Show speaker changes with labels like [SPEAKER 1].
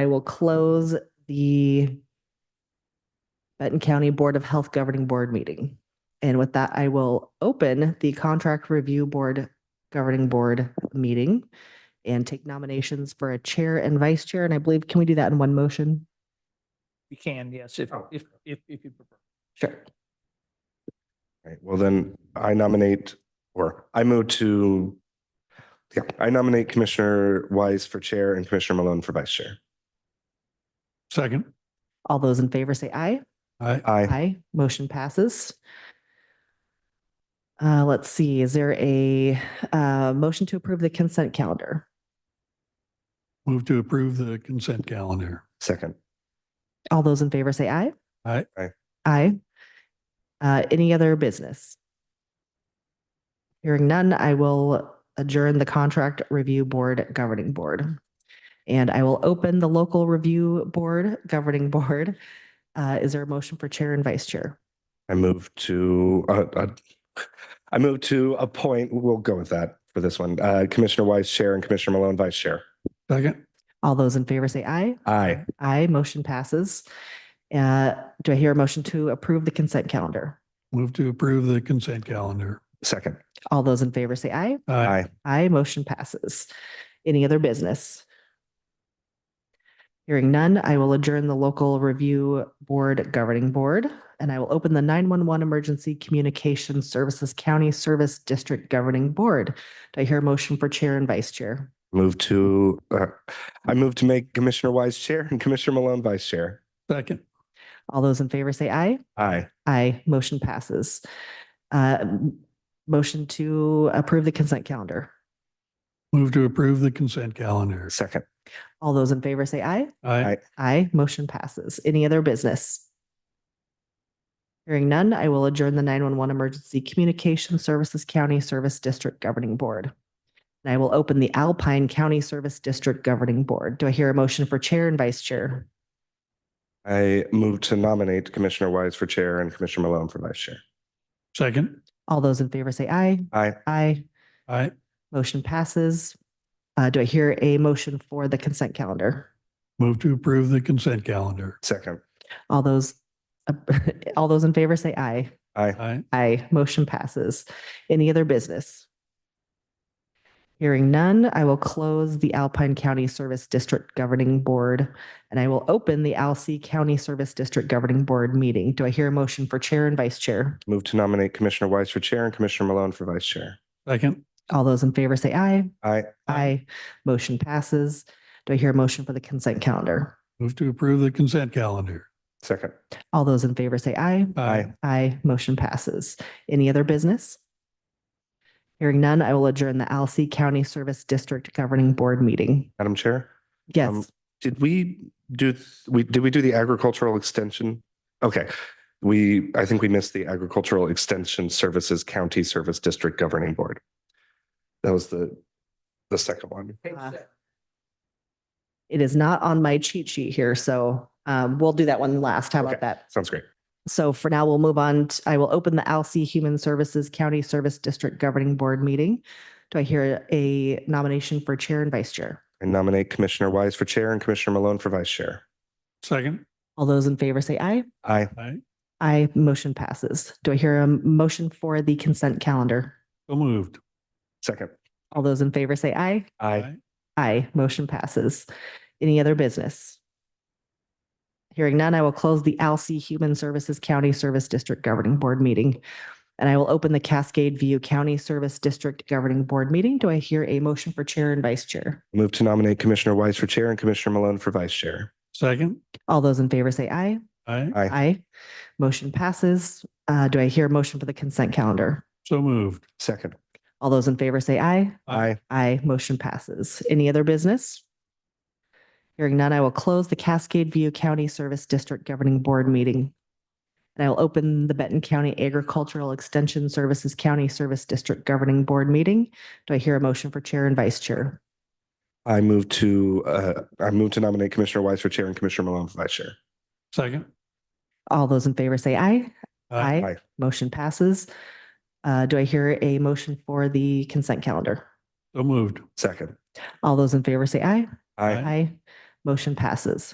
[SPEAKER 1] I will close the Benton County Board of Health Governing Board meeting. And with that, I will open the Contract Review Board Governing Board meeting and take nominations for a chair and vice chair. And I believe, can we do that in one motion?
[SPEAKER 2] You can, yes, if, if, if, if you prefer.
[SPEAKER 1] Sure.
[SPEAKER 3] Right, well then I nominate, or I move to, yeah, I nominate Commissioner Wise for Chair and Commissioner Malone for Vice Chair.
[SPEAKER 4] Second.
[SPEAKER 1] All those in favor say aye.
[SPEAKER 4] I,
[SPEAKER 3] Aye.
[SPEAKER 1] Aye. Motion passes. Uh, let's see, is there a, uh, motion to approve the consent calendar?
[SPEAKER 4] move to approve the consent calendar.
[SPEAKER 3] Second.
[SPEAKER 1] All those in favor say aye.
[SPEAKER 4] Aye.
[SPEAKER 3] Aye.
[SPEAKER 1] Aye. Uh, any other business? Hearing none, I will adjourn the Contract Review Board Governing Board. And I will open the Local Review Board Governing Board. Uh, is there a motion for Chair and Vice Chair?
[SPEAKER 3] I move to, uh, uh, I move to appoint, we'll go with that for this one, uh, Commissioner Wise Chair and Commissioner Malone Vice Chair.
[SPEAKER 4] Second.
[SPEAKER 1] All those in favor say aye.
[SPEAKER 3] Aye.
[SPEAKER 1] Aye, motion passes. Uh, do I hear a motion to approve the consent calendar?
[SPEAKER 4] Move to approve the consent calendar.
[SPEAKER 3] Second.
[SPEAKER 1] All those in favor say aye.
[SPEAKER 4] Aye.
[SPEAKER 3] Aye.
[SPEAKER 1] Aye, motion passes. Any other business? Hearing none, I will adjourn the local review board governing board, and I will open the 911 Emergency Communication Services County Service District Governing Board. Do I hear a motion for chair and vice chair?
[SPEAKER 3] Move to, uh, I move to make Commissioner Wise Chair and Commissioner Malone Vice Chair.
[SPEAKER 4] Second.
[SPEAKER 1] All those in favor say aye.
[SPEAKER 3] Aye.
[SPEAKER 1] Aye, motion passes. Uh, m- Motion to approve the consent calendar.
[SPEAKER 4] Move to approve the consent calendar.
[SPEAKER 3] Second.
[SPEAKER 1] All those in favor say aye.
[SPEAKER 4] Aye.
[SPEAKER 1] Aye, motion passes. Any other business? Hearing none, I will adjourn the 911 Emergency Communication Services County Service District Governing Board. And I will open the Alpine County Service District Governing Board. Do I hear a motion for Chair and Vice Chair?
[SPEAKER 3] I move to nominate Commissioner Wise for Chair and Commissioner Malone for Vice Chair.
[SPEAKER 4] Second.
[SPEAKER 1] All those in favor say aye.
[SPEAKER 3] Aye.
[SPEAKER 1] Aye,
[SPEAKER 4] Aye.
[SPEAKER 1] motion passes. Uh, Do I hear a motion for the consent calendar?
[SPEAKER 4] Move to approve the consent calendar.
[SPEAKER 3] Second.
[SPEAKER 1] All those, uh, all those in favor say aye.
[SPEAKER 3] Aye.
[SPEAKER 4] Aye.
[SPEAKER 1] Aye, motion passes. Any other business? Hearing none, I will close the Alpine County Service District Governing Board and I will open the Alsea County Service District Governing Board meeting. Do I hear a motion for Chair and Vice Chair?
[SPEAKER 3] Move to nominate Commissioner Wise for Chair and Commissioner Malone for Vice Chair.
[SPEAKER 4] Second.
[SPEAKER 1] All those in favor say aye.
[SPEAKER 3] Aye.
[SPEAKER 1] Aye, motion passes. Do I hear a motion for the consent calendar?
[SPEAKER 4] Move to approve the consent calendar.
[SPEAKER 3] Second.
[SPEAKER 1] All those in favor say aye.
[SPEAKER 3] Aye.
[SPEAKER 1] Aye, motion passes. Any other business? Hearing none, I will adjourn the Alsea County Service District Governing Board meeting.
[SPEAKER 3] Madam Chair, Um,
[SPEAKER 1] Yes,
[SPEAKER 3] did we do, we, did we do the agricultural extension? Okay. We, I think we missed the Agricultural Extension Services County Service District Governing Board. That was the, the second one.
[SPEAKER 1] Uh, it is not on my cheat sheet here, so um, we'll do that one last. How about
[SPEAKER 3] Okay.
[SPEAKER 1] that?
[SPEAKER 3] Sounds great.
[SPEAKER 1] So for now, we'll move on. t- I will open the Alsea Human Services County Service District Governing Board meeting. Do I hear a nomination for Chair and Vice Chair?
[SPEAKER 3] I nominate Commissioner Wise for Chair and Commissioner Malone for Vice Chair.
[SPEAKER 4] Second.
[SPEAKER 1] All those in favor say aye.
[SPEAKER 3] Aye.
[SPEAKER 4] Aye.
[SPEAKER 1] Aye, motion passes. Do I hear a motion for the consent calendar?
[SPEAKER 4] So moved.
[SPEAKER 3] Second.
[SPEAKER 1] All those in favor say aye.
[SPEAKER 3] Aye.
[SPEAKER 1] Aye, motion passes. Any other business? Hearing none, I will close the Alsea Human Services County Service District Governing Board meeting. And I will open the Cascade View County Service District Governing Board meeting. Do I hear a motion for Chair and Vice Chair?
[SPEAKER 3] Move to nominate Commissioner Wise for Chair and Commissioner Malone for Vice Chair.
[SPEAKER 4] Second.
[SPEAKER 1] All those in favor say aye.
[SPEAKER 4] Aye.
[SPEAKER 3] Aye.
[SPEAKER 1] Aye. Motion passes. Uh, do I hear a motion for the consent calendar?
[SPEAKER 4] So moved.
[SPEAKER 3] Second.
[SPEAKER 1] All those in favor say aye.
[SPEAKER 3] Aye.
[SPEAKER 1] Aye, motion passes. Any other business? Hearing none, I will close the Cascade View County Service District Governing Board meeting. And I will open the Benton County Agricultural Extension Services County Service District Governing Board meeting. Do I hear a motion for Chair and Vice Chair?
[SPEAKER 3] I move to, uh, I move to nominate Commissioner Wise for Chair and Commissioner Malone for Vice Chair.
[SPEAKER 4] Second.
[SPEAKER 1] All those in favor say aye.
[SPEAKER 4] Aye.
[SPEAKER 3] Aye.
[SPEAKER 1] Motion passes. Uh, Do I hear a motion for the consent calendar?
[SPEAKER 4] So moved.
[SPEAKER 3] Second.
[SPEAKER 1] All those in favor say aye.
[SPEAKER 3] Aye.
[SPEAKER 1] Aye. Motion passes.